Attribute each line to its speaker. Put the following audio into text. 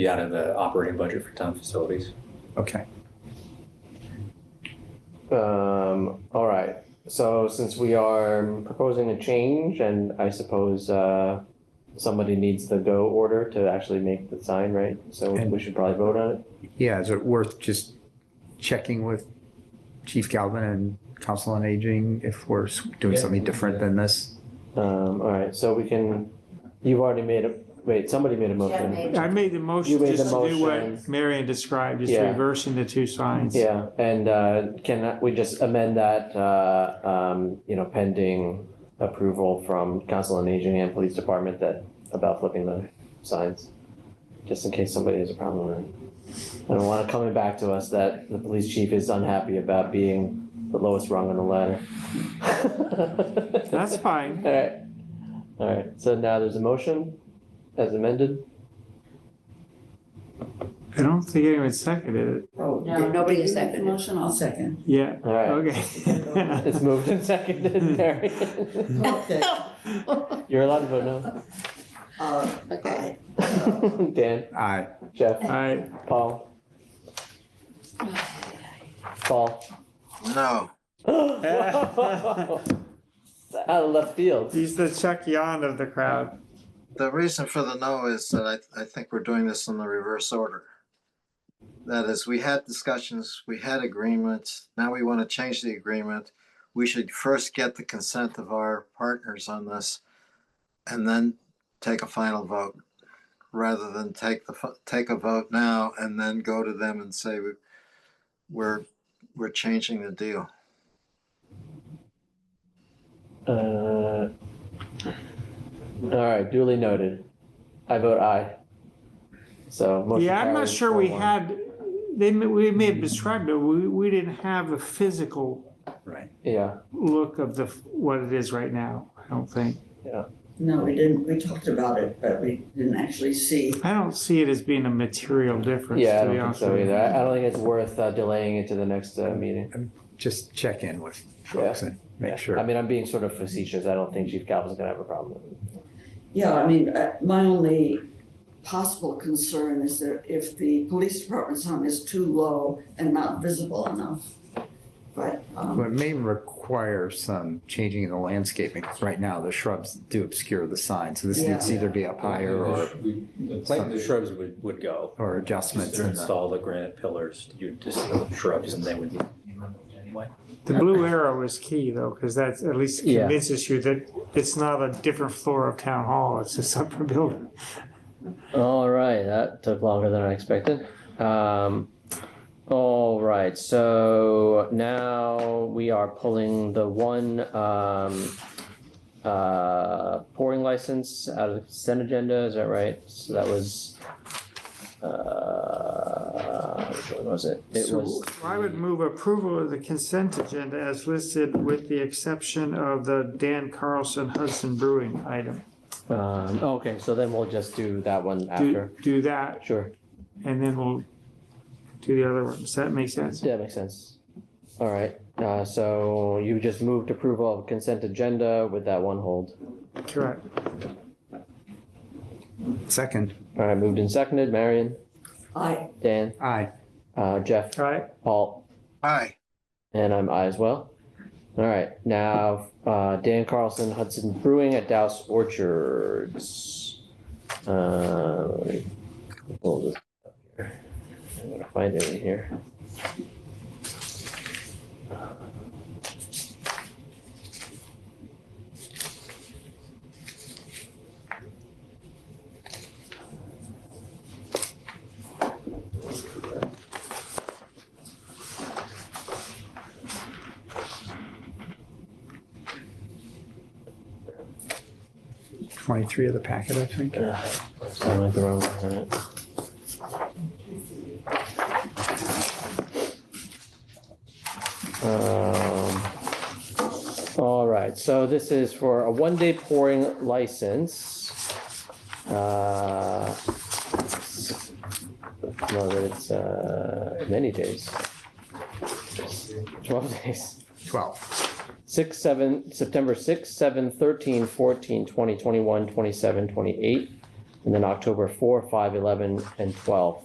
Speaker 1: be out of the operating budget for town facilities.
Speaker 2: Okay.
Speaker 3: Um, all right, so since we are proposing a change and I suppose, uh, somebody needs the go order to actually make the sign, right? So we should probably vote on it.
Speaker 2: Yeah, is it worth just checking with Chief Galvin and Council on Aging if we're s- doing
Speaker 1: Yeah.
Speaker 2: something different than this?
Speaker 3: Um, all right, so we can, you've already made a, wait, somebody made a
Speaker 4: Jen
Speaker 3: motion.
Speaker 4: made-
Speaker 5: I made the motion
Speaker 3: You made
Speaker 5: just
Speaker 3: the
Speaker 5: to do what
Speaker 3: motion.
Speaker 5: Marion described, just
Speaker 3: Yeah.
Speaker 5: reversing the two signs.
Speaker 3: Yeah, and, uh, can we just amend that, uh, um, you know, pending approval from council on aging and police department that, about flipping the signs? Just in case somebody has a problem with it. I don't want it coming back to us that the police chief is unhappy about being the lowest rung on the ladder.
Speaker 5: That's fine.
Speaker 3: All right, all right, so now there's a motion as amended?
Speaker 5: I don't think anyone seconded it.
Speaker 4: No, nobody has seconded.
Speaker 6: Motion, I'll second.
Speaker 5: Yeah,
Speaker 3: All right,
Speaker 5: okay.
Speaker 3: it's moved and seconded, Mary.
Speaker 6: Okay.
Speaker 3: You're allowed to vote no.
Speaker 6: Uh,
Speaker 4: Okay.
Speaker 3: Dan,
Speaker 2: Aye.
Speaker 3: Jeff,
Speaker 5: All right,
Speaker 3: Paul, Paul.
Speaker 7: No.
Speaker 3: Out of left field.
Speaker 5: he's the Chuck Yon of the crowd.
Speaker 7: The reason for the no is that I, I think we're doing this in the reverse order. That is, we had discussions, we had agreements, now we want to change the agreement. We should first get the consent of our partners on this and then take a final vote. Rather than take the, fi- take a vote now and then go to them and say, "We- we're, we're changing the deal.
Speaker 3: Uh, all right, duly noted. I vote aye. So. motion
Speaker 5: Yeah, I'm not
Speaker 3: carries
Speaker 5: sure we
Speaker 3: 4-1.
Speaker 5: had, they, may- we may have described it, we, we didn't have a physical
Speaker 2: Right.
Speaker 3: Yeah,
Speaker 5: look of the, what it is right now, I don't think.
Speaker 6: No, we didn't, we talked about it, but we didn't actually see.
Speaker 5: I don't see it as being a material difference,
Speaker 3: yeah, I
Speaker 5: to
Speaker 3: don't
Speaker 5: be
Speaker 3: think
Speaker 5: honest
Speaker 3: so
Speaker 5: with
Speaker 3: either.
Speaker 5: you.
Speaker 3: I I don't think it's worth uh, delaying it to the next uh, meeting.
Speaker 2: Just check in with folks and
Speaker 3: Yeah.
Speaker 2: make sure.
Speaker 3: I mean, I'm being sort of facetious. I don't think Chief Calvin's gonna have a problem with it.
Speaker 6: Yeah, I mean, uh, my only possible concern is that if the police department sign is too low and not visible enough. But,
Speaker 2: But it
Speaker 6: um,
Speaker 2: may require some changing in the landscaping. 'cause Right now, the shrubs do obscure the sign, so this
Speaker 6: Yeah.
Speaker 2: needs to either be up higher or,
Speaker 1: We- The plant, the shrubs would, would go.
Speaker 2: or adjustments.
Speaker 1: Just
Speaker 2: in the-
Speaker 1: install the granite pillars, you just the shrubs and they would be removed anyway.
Speaker 5: The blue arrow is key though, because that's at least
Speaker 3: Yeah.
Speaker 5: convinces you that it's not a different floor of town hall, it's a separate building.
Speaker 3: All right, that took longer than I expected. Um, all right, so now we are pulling the one, um, uh, pouring license out of the consent agenda, is that right? So that was, uh, which one was it? It
Speaker 5: So
Speaker 3: was,
Speaker 5: I would move approval of the consent agenda as listed with the exception of the Dan Carlson Hudson Brewing item.
Speaker 3: um, okay, so then we'll just do that one
Speaker 5: Do,
Speaker 3: after.
Speaker 5: do that
Speaker 3: Sure,
Speaker 5: and then we'll do the other one. Does that make sense?
Speaker 3: yeah, makes sense. All right, uh, so you just moved approval of consent agenda with that one hold.
Speaker 5: Correct.
Speaker 2: Second,
Speaker 3: All right, moved and seconded. Marion,
Speaker 6: I,
Speaker 3: Dan,
Speaker 2: aye.
Speaker 3: uh, Jeff,
Speaker 5: All right.
Speaker 3: Paul,
Speaker 7: Hi,
Speaker 3: and I'm I as well. All right, now uh, Dan Carlson, Hudson Brewing at Douse Orchards. Uh, let me pull this up here. I'm gonna find it in here.
Speaker 2: Twenty-three of the packet, I think.
Speaker 3: Sound like the wrong one, all right. Um, All right, so this is for a one-day pouring license. Uh, No, but it's uh, many days. 12 days.
Speaker 2: Twelve.
Speaker 3: 6, 7, September 6, 7, 13, 14, 20, 21, 27, 28, And then October 4, 5, 11, and 12.